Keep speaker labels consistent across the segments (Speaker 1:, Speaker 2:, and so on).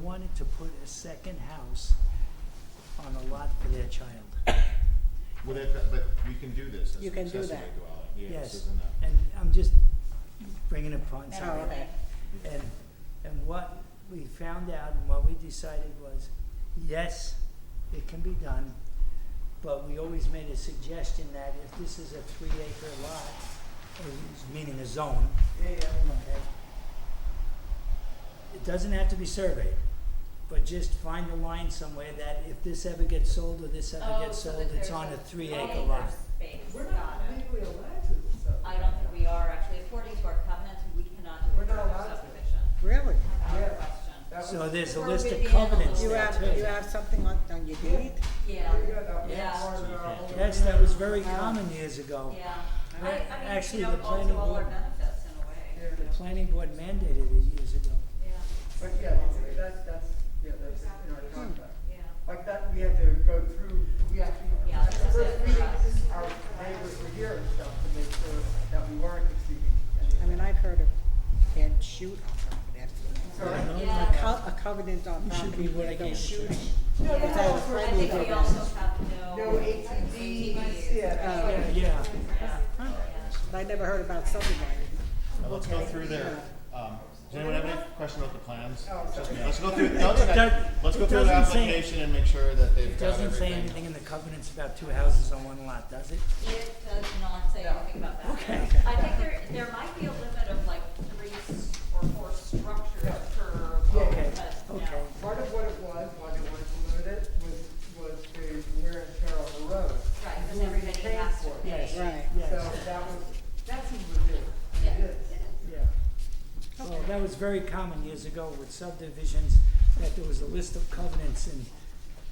Speaker 1: wanted to put a second house on a lot for their child.
Speaker 2: Well, that, that- but we can do this as
Speaker 3: You
Speaker 2: an
Speaker 3: can do
Speaker 2: accessory
Speaker 3: that.
Speaker 2: dwelling, yeah,
Speaker 1: Yes,
Speaker 2: this isn't a,
Speaker 1: and I'm just bringing it upon
Speaker 3: Oh,
Speaker 1: something.
Speaker 3: okay.
Speaker 1: And, and what we found out and what we decided was, yes, it can be done, but we always made a suggestion that if this is a three acre lot, uh, meaning a zone. okay, It doesn't have to be surveyed, but just find a line somewhere that if this ever gets sold or this
Speaker 3: Oh,
Speaker 1: ever
Speaker 4: Oh,
Speaker 1: gets sold, it's on a three acre lot.
Speaker 5: We're not legally allowed to do so.
Speaker 4: I don't think we are, actually, according to our covenant, we cannot do a
Speaker 5: We're not
Speaker 4: further
Speaker 5: allowed to.
Speaker 4: subdivision.
Speaker 3: Really?
Speaker 4: Without
Speaker 5: Yeah.
Speaker 4: question.
Speaker 5: That was-
Speaker 1: So there's a
Speaker 4: Or
Speaker 1: list
Speaker 4: would
Speaker 1: of
Speaker 4: be
Speaker 1: covenants
Speaker 3: You
Speaker 4: Yeah,
Speaker 1: there
Speaker 3: have,
Speaker 1: too.
Speaker 3: you have something on, on your deed?
Speaker 4: Yeah,
Speaker 5: Yeah, that was
Speaker 4: Yeah.
Speaker 5: part of our whole-
Speaker 1: Yes, that was very common years ago.
Speaker 4: yeah.
Speaker 1: I-
Speaker 4: I, I mean,
Speaker 1: actually,
Speaker 4: you know,
Speaker 1: the
Speaker 4: it
Speaker 1: planning
Speaker 4: also all our
Speaker 1: board-
Speaker 4: benefits in a way,
Speaker 5: Yeah.
Speaker 1: The planning board mandated it years ago.
Speaker 4: yeah,
Speaker 5: But yeah, it's- that's, that's, yeah, that's in our contract.
Speaker 4: yeah.
Speaker 5: Like that, we had to go through, we actually,
Speaker 4: Yeah, this is it
Speaker 5: first
Speaker 4: for
Speaker 5: meeting,
Speaker 4: us.
Speaker 5: our neighbors were here and stuff to make sure that we weren't exceeding.
Speaker 3: I mean, I've heard of can't shoot on property, that's,
Speaker 5: Sorry?
Speaker 1: I know.
Speaker 4: Yeah.
Speaker 3: a co- a covenant on
Speaker 1: You should
Speaker 3: property,
Speaker 1: be
Speaker 3: where they
Speaker 1: working
Speaker 3: go
Speaker 1: in
Speaker 3: shooting.
Speaker 1: church.
Speaker 5: No,
Speaker 3: It's
Speaker 5: no,
Speaker 3: all
Speaker 5: no,
Speaker 4: I
Speaker 3: friendly
Speaker 4: think we
Speaker 3: government.
Speaker 4: also have no.
Speaker 5: No ATVs, yeah.
Speaker 3: Uh,
Speaker 1: Yeah, yeah.
Speaker 4: Yeah,
Speaker 3: Huh.
Speaker 4: yeah.
Speaker 3: I never heard about subdividing.
Speaker 2: Now, let's go
Speaker 3: Okay.
Speaker 2: through their, um, does anyone have any question about the plans?
Speaker 5: Oh,
Speaker 2: Just-
Speaker 5: sorry.
Speaker 2: Let's go through, no, it's okay.
Speaker 1: Does-
Speaker 2: let's go
Speaker 1: it
Speaker 2: through the
Speaker 1: doesn't say-
Speaker 2: application and make sure that they've
Speaker 1: It
Speaker 2: got everything.
Speaker 1: doesn't say anything in the covenants about two houses on one lot, does it?
Speaker 4: It does not say anything about that.
Speaker 1: Okay.
Speaker 4: I think there, there might be a limit of like three s- or four structures per lot,
Speaker 5: Okay,
Speaker 4: but no.
Speaker 1: okay.
Speaker 5: Part of what it was, why they wanted to limit it, was, was the wear and tear on the road.
Speaker 4: Right, because everybody
Speaker 5: Paying
Speaker 4: has to
Speaker 5: for it.
Speaker 4: pay.
Speaker 1: Yes.
Speaker 3: Right.
Speaker 5: So
Speaker 1: Yes,
Speaker 5: that was, that seems ridiculous.
Speaker 4: Yeah,
Speaker 5: It
Speaker 4: it
Speaker 5: is.
Speaker 4: is.
Speaker 1: yeah. Well, that was very common years ago with subdivisions, that there was a list of covenants and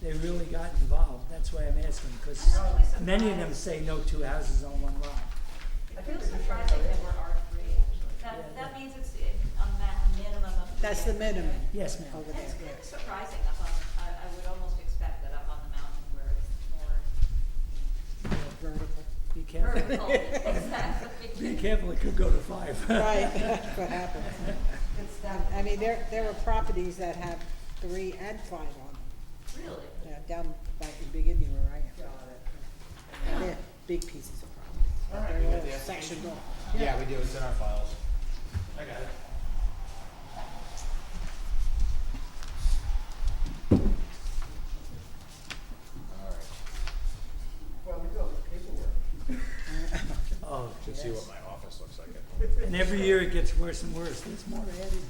Speaker 1: they really got involved. That's why I'm asking, because
Speaker 4: I'm actually
Speaker 1: many of them
Speaker 4: surprised.
Speaker 1: say no two houses on one lot.
Speaker 4: It feels surprising that we're R three, actually.
Speaker 1: Yeah.
Speaker 4: That, that means it's a ma- minimum of. three
Speaker 3: That's the
Speaker 4: acres.
Speaker 3: minimum
Speaker 1: Yes, ma'am.
Speaker 3: over there,
Speaker 4: That's kind of
Speaker 3: yes.
Speaker 4: surprising up on, I, I would almost expect that up on the mountain where it's more
Speaker 3: Vertical.
Speaker 1: Be careful.
Speaker 4: vertical, exactly.
Speaker 1: Be careful, it could go to five.
Speaker 3: Right, that's what happens.
Speaker 5: It's that.
Speaker 3: I mean, there, there are properties that have three and five on them,
Speaker 4: Really?
Speaker 3: you know, down by in Beginning where I
Speaker 5: Got
Speaker 3: am.
Speaker 5: it.
Speaker 3: And They're big pieces of property.
Speaker 2: All right,
Speaker 3: They're
Speaker 2: we got
Speaker 3: all
Speaker 2: the
Speaker 3: sectioned off.
Speaker 2: Yeah, we do, it's in our files. I got it. All right.
Speaker 5: Well, we do all this paperwork.
Speaker 1: Oh,
Speaker 2: Should see
Speaker 1: yes.
Speaker 2: what my office looks like at home.
Speaker 1: And every year it gets worse and worse. There's more added.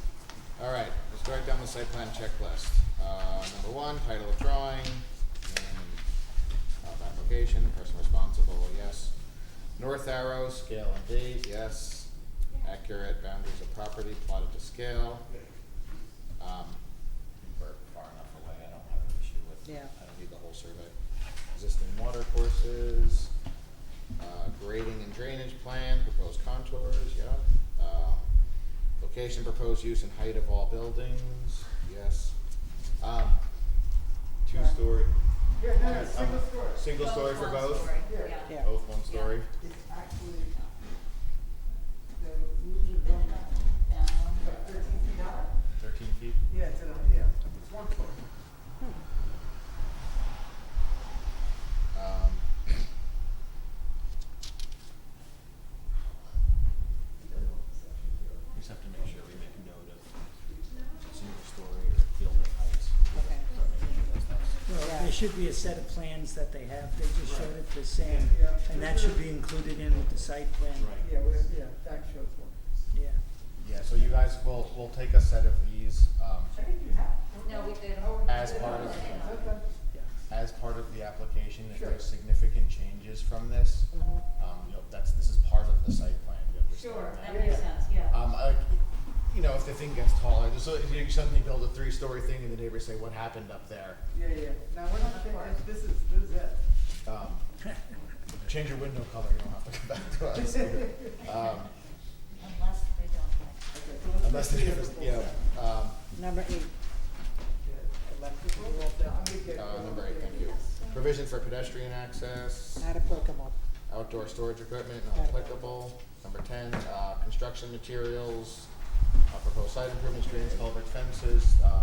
Speaker 2: All right, let's go right down the site plan checklist. Uh, number one, title of drawing, name of application, person responsible, yes. North arrow, scale and date, yes. Accurate boundaries of property plotted to scale. Um, we're far enough away, I don't have an issue with,
Speaker 3: Yeah.
Speaker 2: I don't need the whole survey. Existing water courses, uh, grading and drainage plan, proposed contours, yeah. Um, Location, proposed use and height of all buildings, yes. Um, two-story.
Speaker 5: Yeah, no, no,
Speaker 2: I'm-
Speaker 5: single story.
Speaker 2: Single
Speaker 4: Both
Speaker 2: story for
Speaker 4: one
Speaker 2: both?
Speaker 4: story,
Speaker 5: Yeah.
Speaker 3: Yeah.
Speaker 2: Both one story?
Speaker 5: It's actually, the rules are done about thirteen feet high.
Speaker 2: Thirteen feet?
Speaker 5: Yeah, it's in a, yeah, it's one floor.
Speaker 2: Um, we just have to make sure we make note of single story or building heights.
Speaker 3: Okay.
Speaker 1: Well, there
Speaker 3: Right.
Speaker 1: should be a set of plans that they have. They just showed it the same.
Speaker 5: Yeah.
Speaker 1: And that should be included in with the site plan.
Speaker 2: Right.
Speaker 5: Yeah, we, yeah, that shows one.
Speaker 1: Yeah.
Speaker 2: Yeah, so you guys will, will take a set of these, um,
Speaker 5: I think you have.
Speaker 4: No, we did.
Speaker 5: Oh, you
Speaker 2: As
Speaker 5: did.
Speaker 2: part of-
Speaker 5: Okay.
Speaker 1: Yeah.
Speaker 2: as part of the application, if there's
Speaker 5: Sure.
Speaker 2: significant changes from this,
Speaker 3: Mhm.
Speaker 2: um, you know, that's, this is part of the site plan, you understand
Speaker 4: Sure,
Speaker 2: that?
Speaker 4: that makes sense, yeah.
Speaker 2: Um, I, you know, if the thing gets taller, just so if you suddenly build a three-story thing and the neighbors say, what happened up there?
Speaker 5: Yeah, yeah, no, we're not, thinking- this is, this is it.
Speaker 2: Um, change your window color, you don't have to come back to us. Um,
Speaker 4: Unless they don't like.
Speaker 5: Okay, so let's
Speaker 2: unless the
Speaker 5: make
Speaker 2: neighbors,
Speaker 5: sure
Speaker 2: you know,
Speaker 5: it's-
Speaker 2: um,
Speaker 3: Number eight,
Speaker 5: Yeah, electrical, well, I'm gonna get.
Speaker 2: uh, number eight, thank you. Provision for pedestrian access,
Speaker 3: not applicable.
Speaker 2: outdoor storage equipment, not applicable. Number ten, uh, construction materials, uh, proposed site improvements, drains, culvert fences, uh,